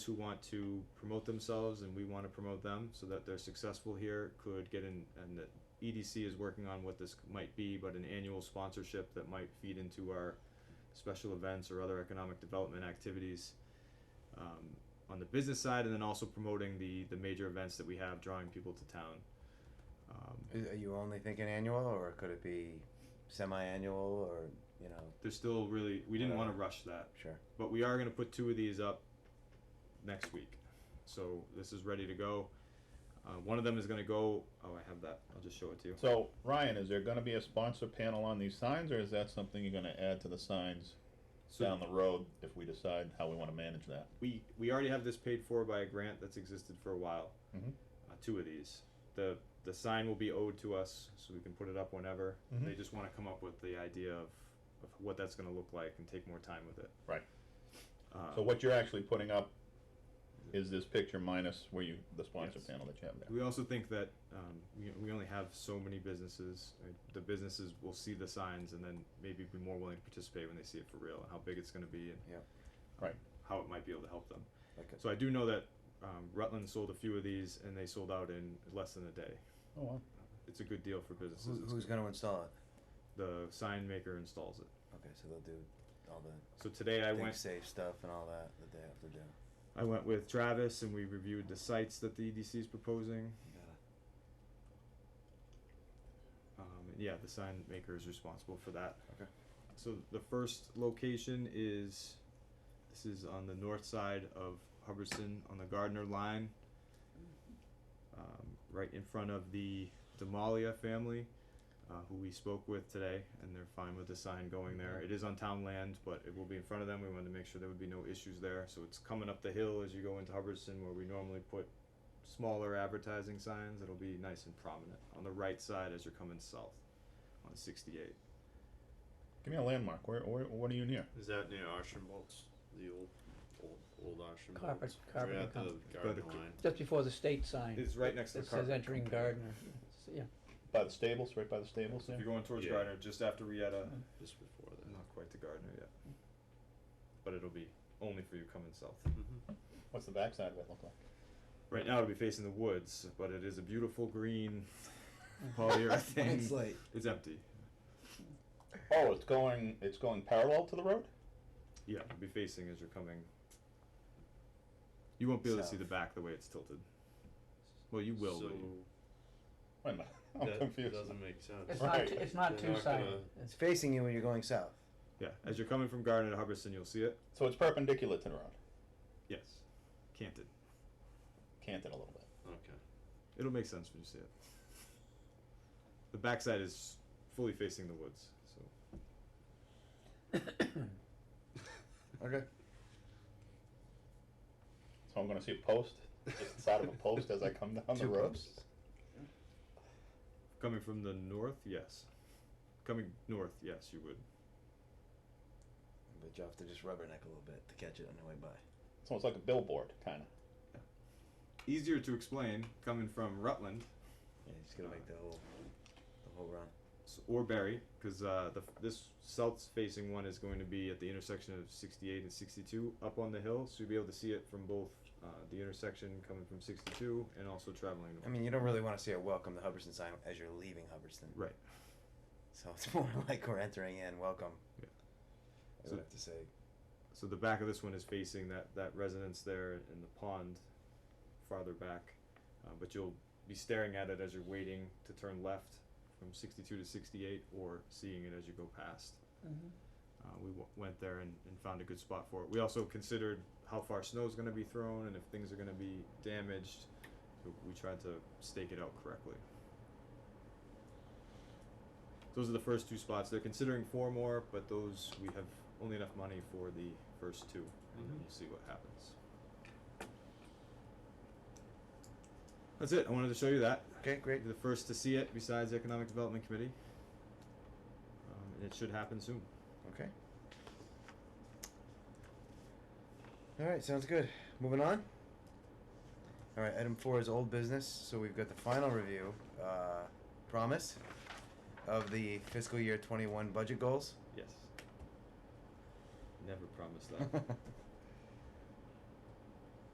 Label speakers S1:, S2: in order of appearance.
S1: who want to promote themselves and we want to promote them so that they're successful here could get in, and the EDC is working on what this might be, but an annual sponsorship that might feed into our special events or other economic development activities. Um, on the business side, and then also promoting the the major events that we have, drawing people to town. Um,
S2: Is, are you only thinking annual, or could it be semi-annual, or you know,
S1: there's still really we didn't want to
S2: Whatever.
S1: rush that,
S2: sure?
S1: but we are going to put two of these up next week. So this is ready to go. Uh, one of them is going to go. Oh, I have that. I'll just show it to you.
S3: So, Ryan, is there gonna be a sponsor panel on these signs, or is that something you're gonna add to the signs
S1: So
S3: down the road if we decide how we wanna manage that?
S1: we we already have this paid for by a grant that's existed for a while.
S3: Mhm.
S1: Uh, two of these. The the sign will be owed to us, so we can put it up whenever.
S3: Mhm.
S1: They just want to come up with the idea of, of what that's going to look like and take more time with it.
S3: Right.
S1: Uh,
S3: So what you're actually putting up is this picture minus where you, the sponsor
S1: Yes.
S3: panel that you have there.
S1: We also think that um, we, we only have so many businesses. uh, The businesses will see the signs and then maybe be more willing to participate when they see it for real and how big it's going to be and
S2: Yep.
S3: Right.
S1: how it might be able to help them.
S2: Like a,
S1: So I do know that um, Rutland sold a few of these and they sold out in less than a day.
S3: Oh, wow.
S1: It's a good deal for businesses.
S2: who,
S1: It's-
S2: who's going to install it?
S1: the sign maker installs it.
S2: Okay, so they'll do all the
S1: So today I
S2: think
S1: went
S2: safe stuff and all that that they have to do.
S1: I went with Travis and we reviewed the sites that the EDC is proposing. Um, and yeah, the sign maker is responsible for that.
S2: Okay.
S1: So the first location is, this is on the north side of Hubbardston on the Gardner line. Um, right in front of the Demalia family, uh, who we spoke with today, and they're fine with the sign going there. It is on town land, but it will be in front of them. We wanted to make sure there would be no issues there. So it's coming up the hill as you go into Hubbardston where we normally put smaller advertising signs. It'll be nice and prominent on the right side as you're coming south on sixty-eight.
S3: Give me a landmark. Where, where, what are you near?
S4: Is that near Archibald's? The old, old, old Archibald's?
S5: Carpet-
S4: Right
S5: carpet and
S4: at the
S5: company.
S4: garden
S1: But-
S4: line.
S5: Just before the state sign,
S1: It's right next to
S5: it
S1: the carpet.
S5: says entering Gardner, It's- yeah.
S3: By the stables, right by the stables
S1: If
S3: there?
S1: you're going towards
S4: Yeah. Mm-hmm.
S1: Gardner, just after Rieta,
S4: Just before that.
S1: not quite to Gardner yet. But it'll be only for you coming south.
S4: Mm-hmm.
S3: What's the backside of it look like?
S1: Right now it'll be facing the woods, but it is a beautiful green
S5: Mm.
S1: polyurethane.
S2: Mm-hmm. it's like
S1: It's empty.
S3: Oh, it's going, it's going parallel to the road?
S1: Yeah, it'll be facing as you're coming. You won't be able to see the
S2: South.
S1: back the way it's tilted. Well, you will.
S4: So,
S1: but you-
S3: Wait a minute, I'm
S4: that
S3: confused.
S4: doesn't make sense.
S5: It's not,
S3: Right.
S5: t- it's not
S4: They're not
S5: two-sided,
S2: it's
S5: it's,
S2: facing you when you're going south.
S1: yeah, as you're coming from Gardner to Hubbardston, you'll see it.
S3: So it's perpendicular to the road,
S1: Yes, canted.
S3: canted a little bit.
S4: Okay.
S1: It'll make sense when you see it. The backside is fully facing the woods, so
S2: Okay.
S3: So I'm gonna see a post, just the side of a post as I come down the
S2: Two
S3: road?
S2: posts.
S1: Coming from the north, yes. Coming north, yes, you would.
S2: But you have to just rubberneck a little bit to catch it on the way by.
S3: It's almost like a billboard, kinda.
S1: Easier to explain coming from Rutland
S2: Yeah, you just gotta make the whole the whole run.
S1: s- or Barry, because uh, the f- this south-facing one is going to be at the intersection of 68 and 62, up on the hill, so you'll be able to see it from both uh, the intersection coming from 62 and also traveling.
S2: I mean, you don't really want to see a welcome to Hubbardston sign as you're leaving Hubbardston.
S1: right.
S2: So it's more like we're entering in. Welcome.
S1: Yeah.
S2: I
S1: So-
S2: would have to say.
S1: So the back of this one is facing that, that residence there in the pond farther back. Uh, but you'll be staring at it as you're waiting to turn left from 62 to 68 or seeing it as you go past.
S5: Mhm.
S1: Uh, we w- went there and, and found a good spot for it. We also considered how far snow's going to be thrown and if things are going to be damaged. So we tried to stake it out correctly. Those are the first two spots. They're considering four more, but those we have only enough money for the first two, and then
S4: Mhm.
S1: we'll see what happens. That's it. I wanted to show you that.
S2: Okay, great.
S1: You're the first to see it besides the Economic Development Committee. Um, and it should happen soon.
S2: Okay. All right, sounds good. Moving on. All right, item four is old business. So we've got the final review, uh, promise, of the fiscal year 21 budget goals.
S1: Yes. Never promised that.